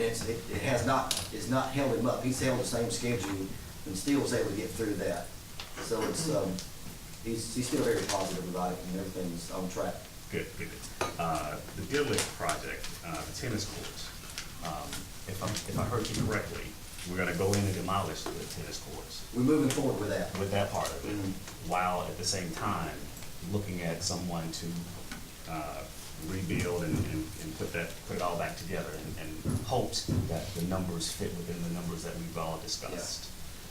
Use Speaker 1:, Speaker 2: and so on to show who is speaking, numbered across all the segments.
Speaker 1: it's, it it has not, it's not held him up. He's held the same schedule and still was able to get through that. So it's, um, he's, he's still very positive about it and everything's on track.
Speaker 2: Good, good. Uh, The Deer Lake project, uh, the tennis courts, um, if I'm, if I heard you correctly, we're gonna go in and demolish the tennis courts
Speaker 1: We're moving forward with that.
Speaker 2: with that part of it,
Speaker 1: Mhm.
Speaker 2: while at the same time, looking at someone to uh, rebuild and, and and put that, put it all back together and, and hopes that the numbers fit within the numbers that we've all discussed.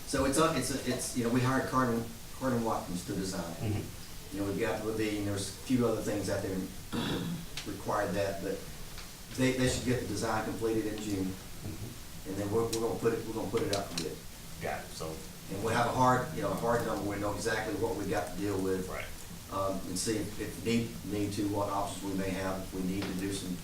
Speaker 1: So it's, a- it's, a- it's, you know, we hired Carden, Carden Watkins to design it.
Speaker 2: Mhm.
Speaker 1: You know, we've got the Levine, there's a few other things out there that required that, but they, they should get the design completed in June. And then we're, we're gonna put it, we're gonna put it out for bid.
Speaker 2: Mm-hmm. Got it, so,
Speaker 1: And we'll have a hard, you know, a hard number, we know exactly what we got to deal with.
Speaker 2: right,
Speaker 1: Um, and see if, if need, need to, what options we may have, if we need to do some,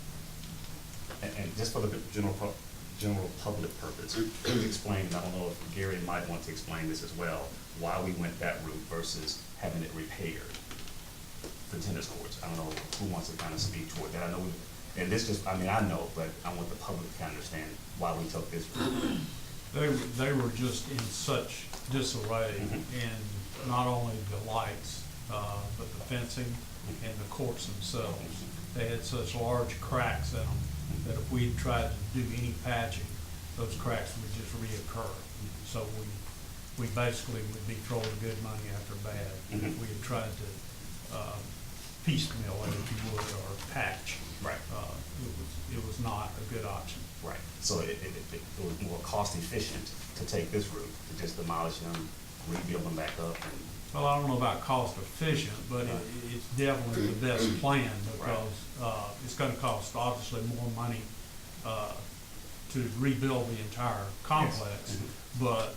Speaker 2: and, and just for the general, pub- general public purpose, please explain, and I don't know if Gary might want to explain this as well, why we went that route versus having it repaired. the tennis courts. I don't know who wants to kind of speak toward that. I know, and this just, I mean, I know, but I want the public to kind of understand why we took this route.
Speaker 3: They, were- they were just in such disarray in not only the lights, uh, but the fencing and the courts themselves. They had such large cracks in them that if we tried to do any patching, those cracks would just reoccur. So we, we basically would be throwing good money after bad. if
Speaker 2: Mhm.
Speaker 3: We had tried to um, piecemeal it, if you would, or patch.
Speaker 2: Right.
Speaker 3: Uh, It was, it was not a good option.
Speaker 2: Right. So it, it, it- it was more cost efficient to take this route, to just demolish them, rebuild them back up and,
Speaker 3: Well, I don't know about cost efficient, but it, it's definitely the best plan because, uh, it's gonna cost obviously more money, uh, to rebuild the entire complex, but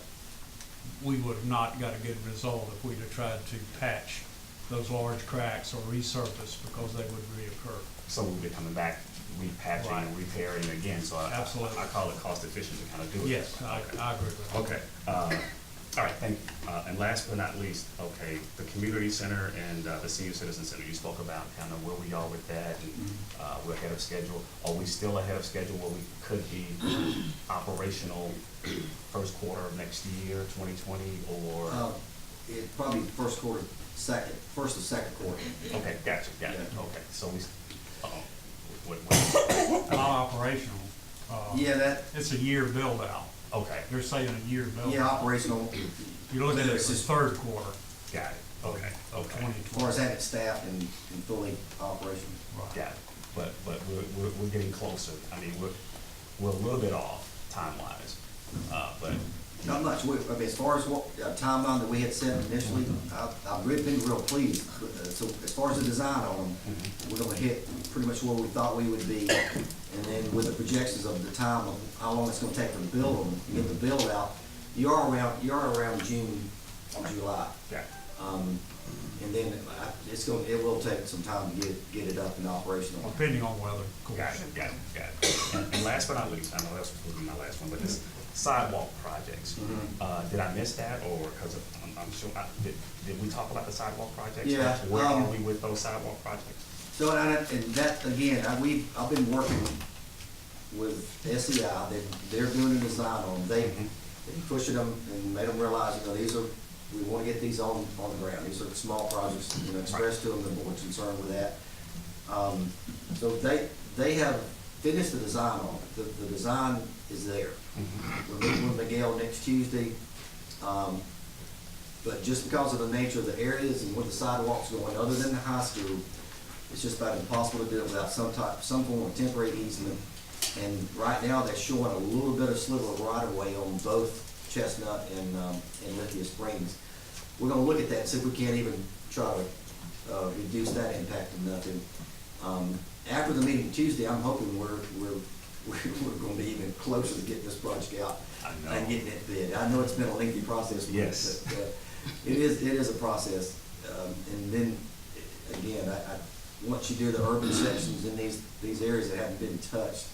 Speaker 3: we would have not got a good result if we'd have tried to patch those large cracks or resurface because they would reoccur.
Speaker 2: so we'll be coming back, repatching and
Speaker 3: Right.
Speaker 2: repairing again. So I,
Speaker 3: Absolutely.
Speaker 2: I call it cost efficient to kind of do it.
Speaker 3: Yes, I, I agree with that.
Speaker 2: Okay, uh, all right, thank, uh, and last but not least, okay, the community center and, uh, the senior citizen center, you spoke about kind of where we are with that, and,
Speaker 3: Mm-hmm.
Speaker 2: uh, we're ahead of schedule. Are we still ahead of schedule where we could be operational first quarter of next year, twenty twenty,
Speaker 1: uh,
Speaker 3: Oh,
Speaker 2: or?
Speaker 1: it probably first quarter, second, first or second quarter.
Speaker 2: Okay, gotcha, gotcha,
Speaker 1: Yeah.
Speaker 2: okay, so we, s- uh-oh, what, what,
Speaker 3: Not operational. uh,
Speaker 1: Yeah, that,
Speaker 3: It's a year build out.
Speaker 2: okay,
Speaker 3: They're saying a year build.
Speaker 1: yeah, operational.
Speaker 3: You're looking at it
Speaker 1: It's
Speaker 3: as
Speaker 1: just-
Speaker 3: third quarter
Speaker 2: got it, okay,
Speaker 3: of
Speaker 2: okay.
Speaker 3: twenty
Speaker 1: As
Speaker 3: twenty.
Speaker 1: far as having it staffed and, and fully operational.
Speaker 3: Right.
Speaker 2: Yeah, but, but we're, we're, we're getting closer. I mean, we're, we're a little bit off time-wise, uh, but,
Speaker 1: Not much, we, I mean, as far as what, uh, timeline that we had set initially, I, I've really been real pleased. Uh, So as far as the design on them, we're gonna hit pretty much where we thought we would be. And then with the projections of the time of how long it's gonna take to build them, get the build out, you are around, you are around June, July.
Speaker 2: yeah,
Speaker 1: Um, and then I- it's gonna, it will take some time to get, get it up and operational.
Speaker 3: Depending on weather, of course.
Speaker 2: got it, got it, got it. And- And last but not least, I know that's supposed to be my last one, but this sidewalk projects.
Speaker 1: Mhm.
Speaker 2: Uh, did I miss that, or, because I'm, I'm sure, I, did, did we talk about the sidewalk projects?
Speaker 1: Yeah,
Speaker 2: Where are
Speaker 1: um,
Speaker 2: we with those sidewalk projects?
Speaker 1: So, and, I- and that, again, I, we, I've been working with SEI, they, they're doing a design on, them. they,
Speaker 2: Mhm.
Speaker 1: they pushing them and made them realize, you know, these are, we wanna get these on, on the ground, these are small projects, you know, express to them, the board's concerned with that. Um, so they, they have finished the design on it, the, the design is there. We're meeting with Miguel next Tuesday, um, but just because of the nature of the areas and where the sidewalks going, other than the high school, it's just about impossible to do it without some type, some form of temporary easement. And right now, they're showing a little bit of sliver of right of way on both Chestnut and, um, and Lithia Springs. We're gonna look at that and see if we can't even try to, uh, reduce that impact to nothing. Um, after the meeting Tuesday, I'm hoping we're, we're, we're, we're gonna be even closer to getting this project out.
Speaker 2: I know.
Speaker 1: And getting it bid. I know it's been a lengthy process. but-
Speaker 2: Yes.
Speaker 1: but, uh, It is, it is a process. Um, and then, eh, again, I, I, once you do the urban
Speaker 2: Mm-hmm.
Speaker 1: sections in these, these areas that haven't been touched,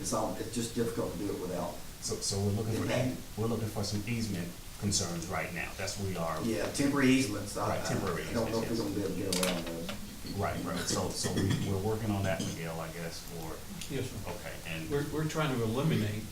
Speaker 1: it's all, it's just difficult to do it without.
Speaker 2: So, so we're looking for,
Speaker 1: Okay.
Speaker 2: we're looking for some easement concerns right now, that's where we are.
Speaker 1: Yeah, temporary easements. I-
Speaker 2: Right, temporary
Speaker 1: I- I don't know if we're
Speaker 2: easements,
Speaker 1: gonna be able to get around those.
Speaker 2: Right, right, so, so we, we're working on that, Miguel, I guess, or,
Speaker 3: Yes, sir.
Speaker 2: okay, and.
Speaker 3: We're, we're trying to eliminate